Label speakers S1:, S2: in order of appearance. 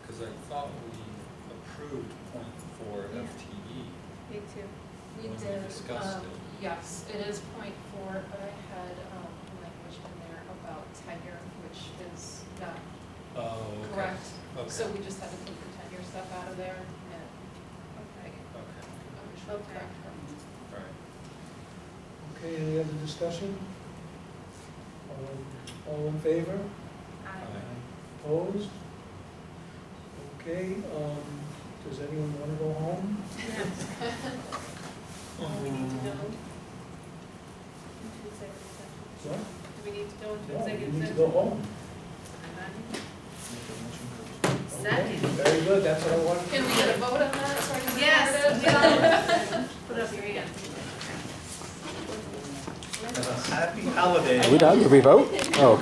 S1: because I thought we approved point four E.
S2: Yeah.
S1: FTE.
S2: Me too.
S1: When
S3: We
S1: we
S3: did,
S1: discussed
S3: um,
S1: it.
S3: yes, it is point four, but I had, um, language in there about tenure, which is not
S1: Oh, okay.
S3: correct.
S1: Okay.
S3: So we just had to take the tenure stuff out of there and,
S1: Okay,
S3: um,
S1: all
S3: which will correct her.
S1: right.
S4: Okay, any other discussion? Um, All- All in favor? Opposed? Okay, um, does anyone want to go home?
S2: Do we need to go into executive
S4: No?
S2: session? Do we need to go into
S4: No, you
S2: executive
S4: need to
S2: session?
S4: go home. Okay,
S2: Second.
S4: Very good, that's what I wanted.
S3: Can we get a vote on that? so I can record it?
S2: Yes. Put up your hand.
S5: Happy holidays.
S6: Are we done? Did we vote? Oh,